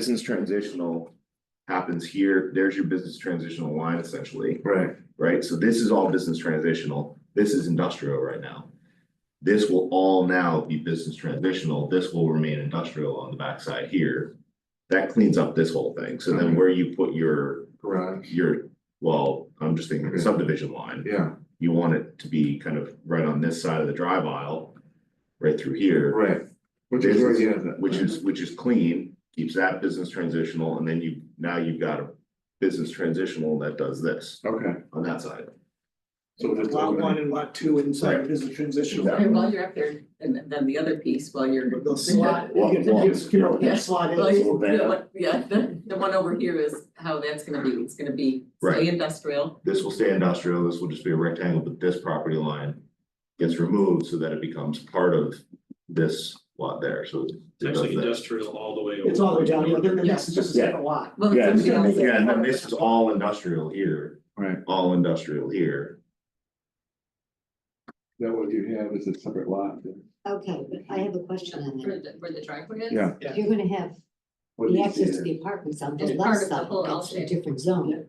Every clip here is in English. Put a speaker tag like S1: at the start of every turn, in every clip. S1: business transitional happens here, there's your business transitional line essentially,
S2: Right,
S1: right? So this is all business transitional, this is industrial right now. This will all now be business transitional, this will remain industrial on the backside here. That cleans up this whole thing, so then where you put your,
S2: garage,
S1: your, well, I'm just thinking subdivision line.
S2: yeah,
S1: You want it to be kind of right on this side of the drive aisle, right through here.
S2: right. Which is where he has it.
S1: Which is, which is clean, keeps that business transitional, and then you, now you've got a business transitional that does this
S2: Okay,
S1: on that side.
S2: so just
S3: Lot one
S2: eliminate,
S3: and lot two
S1: Right.
S3: inside business transitional.
S1: Exactly.
S4: And while you're up there, and and then the other piece while you're.
S3: The slot, you get to just, you know, that slot
S4: Well,
S3: is,
S4: you- the one- Yeah, the, the one over here is how that's gonna be, it's gonna be
S1: Right.
S4: stay industrial,
S1: This will stay industrial, this will just be a rectangle, but this property line gets removed so that it becomes part of this lot there, so. it
S5: It's actually
S1: does that.
S5: industrial all the way over.
S3: it's all the way down, you know, they're, they're next, it's just a
S1: Yeah.
S3: separate lot.
S4: well,
S1: Yeah,
S4: it's
S1: it's
S4: gonna
S1: gonna
S4: be
S1: be- yeah, and then this is all industrial here,
S2: right,
S1: all industrial here,
S2: that what you have is a separate lot, then?
S6: Okay, but I have a question on
S4: where
S6: that.
S4: the, where the driveway is.
S2: Yeah.
S6: You're gonna have
S2: What do
S6: the
S2: you see
S6: access to
S2: there?
S6: the apartments on the
S4: It's
S6: left
S4: part of the
S6: side,
S4: whole
S6: that's a
S4: outfit.
S6: different zone.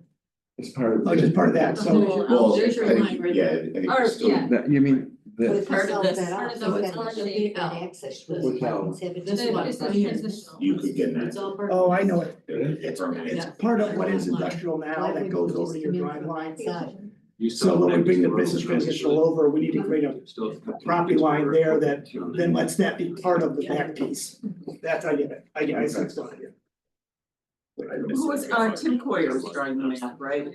S2: It's part of.
S3: Oh, just part of that,
S4: The
S3: so.
S7: Oh,
S4: whole-
S1: well, I
S4: there's your
S1: think-
S4: line right
S1: yeah, I
S4: there.
S1: think it's
S4: Or,
S1: still-
S4: yeah.
S2: That, you mean,
S6: But
S2: the,
S6: if
S4: Part
S6: you
S4: of
S6: solve
S4: this-
S6: that
S4: part
S6: out,
S4: of
S6: so
S4: the-
S6: then there'll be different access to the
S3: um,
S2: Without-
S6: apartments having
S4: This
S6: different
S4: one,
S6: access.
S4: right here.
S1: You could get that.
S6: It's all part of
S3: Oh, I know it,
S1: It's permanent.
S3: it's part of what is industrial now that goes over to your drive line.
S5: You
S3: So
S5: saw
S3: when we
S5: that
S3: bring the
S5: road,
S3: business transitional over, we need to create a,
S5: still-
S3: property line there that then let's that be part of the back piece. That's, I get it, I get, I see what's going on here.
S7: Who was, uh, Tim Coyer was drawing the map, right?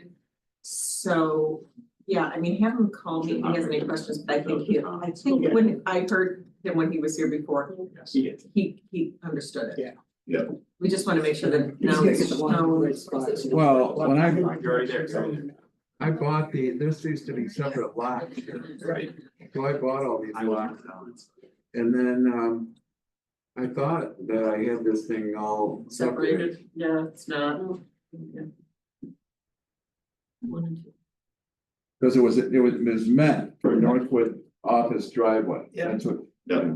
S7: So, yeah, I mean, have him call me if he has any questions, but I think he, I think when, I heard him when he was here before,
S3: See it.
S7: he, he understood it.
S3: Yeah.
S1: Yeah.
S7: We just wanna make sure that
S3: You just
S7: now
S3: gotta
S7: it's
S3: get the one in the
S7: shown.
S3: right spot.
S2: Well, when I-
S1: You're already there, you're already
S2: I bought the, this used to be separate lots,
S1: Right.
S2: so I bought all these
S5: I
S2: lots,
S5: walked down.
S2: and then, um. I thought that I had this thing all separated,
S7: Separated, yeah, it's not.
S2: because it was, it was, it was meant for Northwood office driveway,
S3: Yeah.
S2: that's what.
S1: Yeah.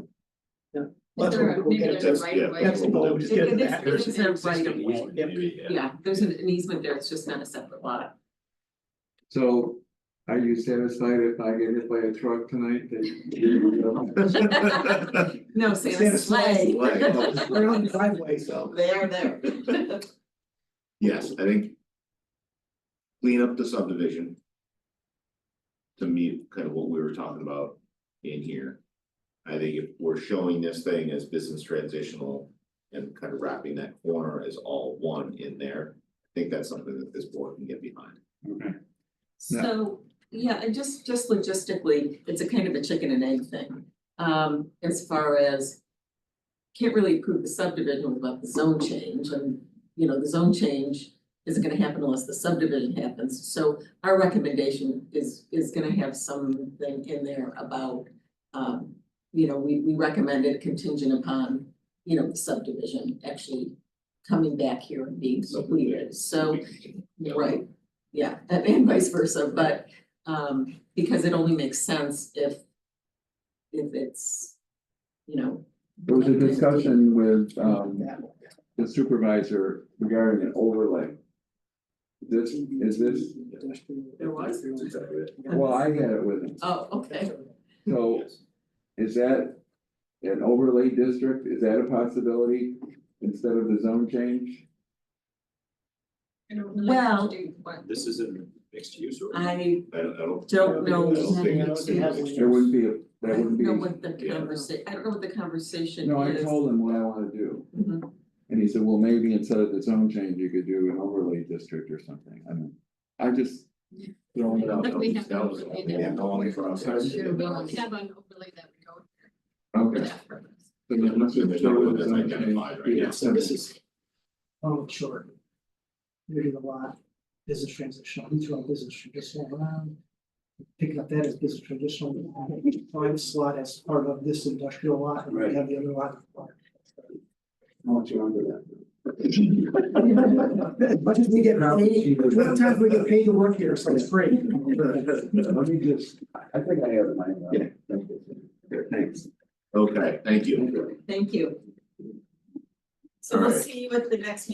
S3: That's what we'll get it.
S1: That's- yeah.
S3: That's what we'll just get back.
S7: There's an
S5: Existing
S7: existing
S5: easement,
S3: Yep.
S5: maybe, yeah.
S7: Yeah, there's an easement there, it's just not a separate lot.
S2: So are you satisfied if I get hit by a truck tonight? that-
S7: No,
S3: Santa
S7: Santa
S3: Slay.
S7: sleigh.
S3: We're on the driveway, so.
S7: They are there.
S1: Yes, I think. Clean up the subdivision. To meet kind of what we were talking about in here. I think if we're showing this thing as business transitional and kind of wrapping that corner as all one in there. I think that's something that this board can get behind.
S2: Okay. Yeah.
S7: So, yeah, and just, just logistically, it's a kind of a chicken and egg thing. Um, as far as. Can't really approve the subdivision without the zone change and, you know, the zone change isn't gonna happen unless the subdivision happens. So our recommendation is, is gonna have something in there about, um. You know, we, we recommend it contingent upon, you know, the subdivision actually coming back here and being completed, so. Right, yeah, and- and vice versa, but um because it only makes sense if if it's, you know.
S2: There was a discussion with um the supervisor regarding an overlay. This, is this,
S7: There was?
S1: That's exactly it.
S2: well, I had it with him,
S7: Oh, okay,
S2: so
S1: Yes.
S2: is that an overlay district, is that a possibility instead of the zone change?
S7: Well-
S5: This is in mixed use or?
S7: I
S1: I don't, I don't.
S7: don't know.
S1: I don't think it's-
S2: There wouldn't be, a
S7: I
S2: that
S7: don't
S2: wouldn't
S7: know
S2: be,
S7: what the conversa- I don't know what the conversation is.
S2: no, I told him what I wanna do.
S7: Mhm.
S2: And he said, well, maybe instead of the zone change, you could do an overlay district or something, I mean, I just. throwing it out.
S1: That
S4: we have to
S1: was-
S4: overlay
S1: yeah,
S2: that.
S1: no one process.
S2: Sure,
S4: have an overlay that would go
S2: Okay.
S4: purpose.
S2: So then let's just
S1: There's
S2: go
S1: no
S2: with
S1: one
S2: the
S1: that's
S2: zone
S1: identified
S2: change.
S1: right now.
S2: Yeah,
S3: So this is. Oh, sure. You're doing a lot, business transitional, you throw business transitional around. Picking up that as business transitional, find a slot as part of this industrial lot, and we have the other lot.
S2: I'll let you under that.
S3: As much as we get paid, sometimes we get paid to work here, so it's free.
S2: Let me just, I think I have it, mine.
S1: Yeah.
S2: Thanks.
S1: Okay, thank you.
S7: Thank you.
S1: All
S7: So we'll
S1: right.
S7: see you at the next